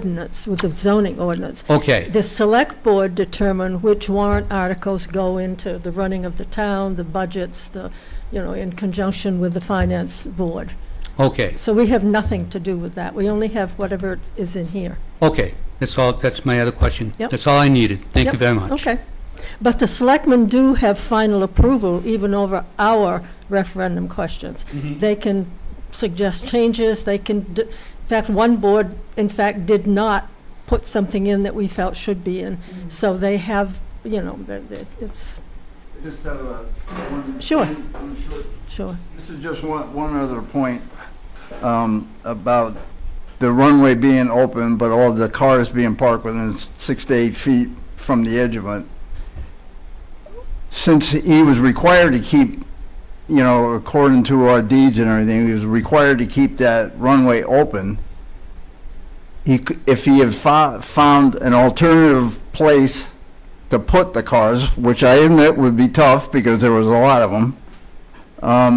ordinance, with the zoning ordinance. Okay, The select board determine which warrant articles go into the running of the town, the budgets, the, you know, in conjunction with the finance board. okay, So we have nothing to do with that. We only have whatever is in here. okay. That's all, that's my other question. Yep. That's all I needed. Thank you Yep, very much. Okay. But the selectmen do have final approval even over our referendum questions. Mhm. They can suggest changes, they can, d- in fact, one board, in fact, did not put something in that we felt should be in. So they have, you know, the- the- it's, I Just have a one. Sure. one- one short- sure. This is just one, one other point um, about the runway being open, but all the cars being parked within s- six to eight feet from the edge of it. Since he was required to keep, you know, according to our deeds and everything, he was required to keep that runway open. He, c- if he had fo- found an alternative place to put the cars, which I admit would be tough because there was a lot of them, um,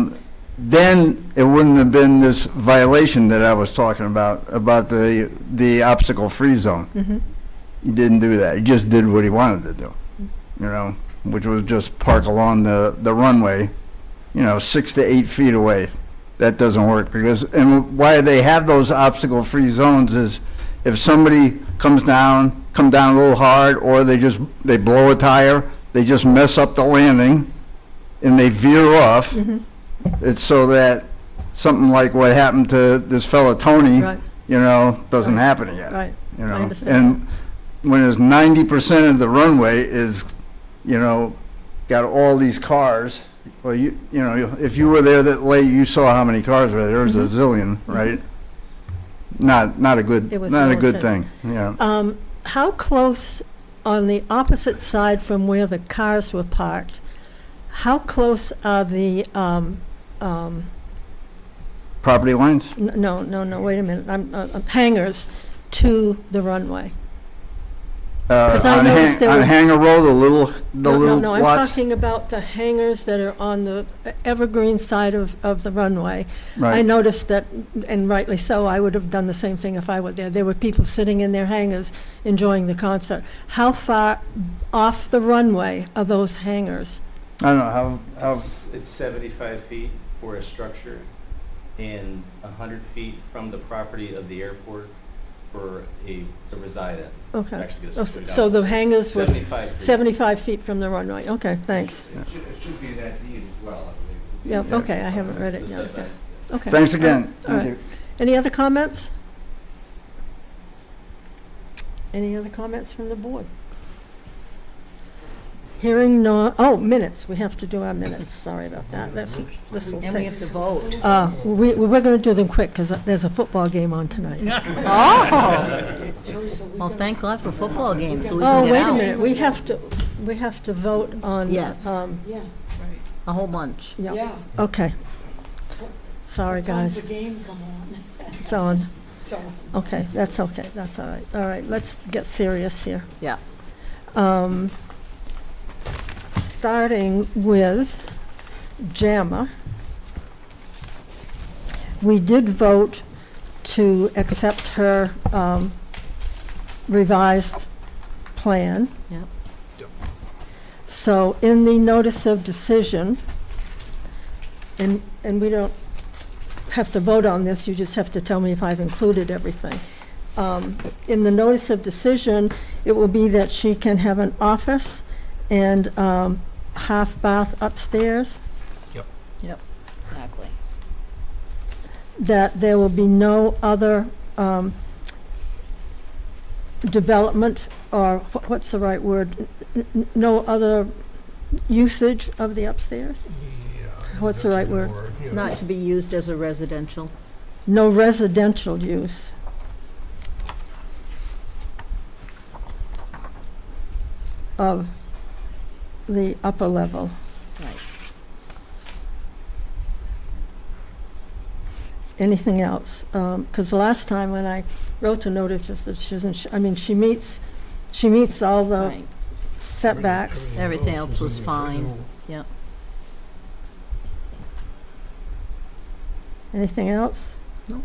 then it wouldn't have been this violation that I was talking about, about the, the obstacle-free zone. Mhm. He didn't do that. He just did what he wanted to do, you know, which was just park along the, the runway, you know, six to eight feet away. That doesn't work because, and why they have those obstacle-free zones is if somebody comes down, come down a little hard, or they just, they blow a tire, they just mess up the landing and they veer off. Mhm. It's so that something like what happened to this fella Tony, Right, you know, doesn't happen again right. you I know, understand. and when it's ninety percent of the runway is, you know, got all these cars, well, you, you know, if you were there that late, you saw how many cars were there, there was a Mm-hmm. zillion, right? Not, not a good, It was not a good militant. thing, yeah. Um, How close, on the opposite side from where the cars were parked, how close are the, um, um, Property lines, n- no, no, no, wait a minute, I'm, uh, uh, hangars to the runway? uh, 'Cause I on noticed Hang, there on were- Hanger Road, the little, the No, little No, no, I'm lots, talking about the hangars that are on the evergreen side of, of the runway. I right, noticed that, and rightly so, I would have done the same thing if I were there. There were people sitting in their hangars enjoying the concert. How far off the runway are those hangars? I don't know, how, how, It's, it's seventy-five feet for a structure and a hundred feet from the property of the airport for a, to reside at. Okay. Oh, Actually, goes s- way down So to the hangars were s- Seventy-five feet. 75 feet from the runway. Okay, thanks. It should, it should be in that deed as well, I Yeah, believe. okay, I haven't read The it yet. setback. Okay. thanks again, All thank right. you. Any other comments? Any other comments from the board? Hearing no, oh, minutes, we have to do our minutes, sorry about that, that's, this will And we take. have to vote. Uh, we, we're gonna do them quick, because there's a football game on tonight. Oh! Well, thank God for football games, so we Oh, can wait get a out. minute, we have to, we have to vote on. Yes. um, Yeah, A whole bunch. Yeah, yeah. okay. Sorry, Time's guys, the game come on, it's on. so. Okay, that's okay, that's all right. All right, let's get serious here. Yeah. Um, Starting with JAMA. We did vote to accept her um, revised plan. Yep. Yep. So in the notice of decision, and, and we don't have to vote on this, you just have to tell me if I've included everything. Um, In the notice of decision, it will be that she can have an office and um, half bath upstairs, Exactly. that there will be no other um, development, or wh- what's the right word? N- n- No other usage of the upstairs? What's the right word? Not to be used as a residential. No residential use. Of the upper level. Right. Anything else? Because last time when I wrote the notice of decision, she- I mean, she meets, she meets all the Right. setbacks. Everything else was fine. Anything else? Nope.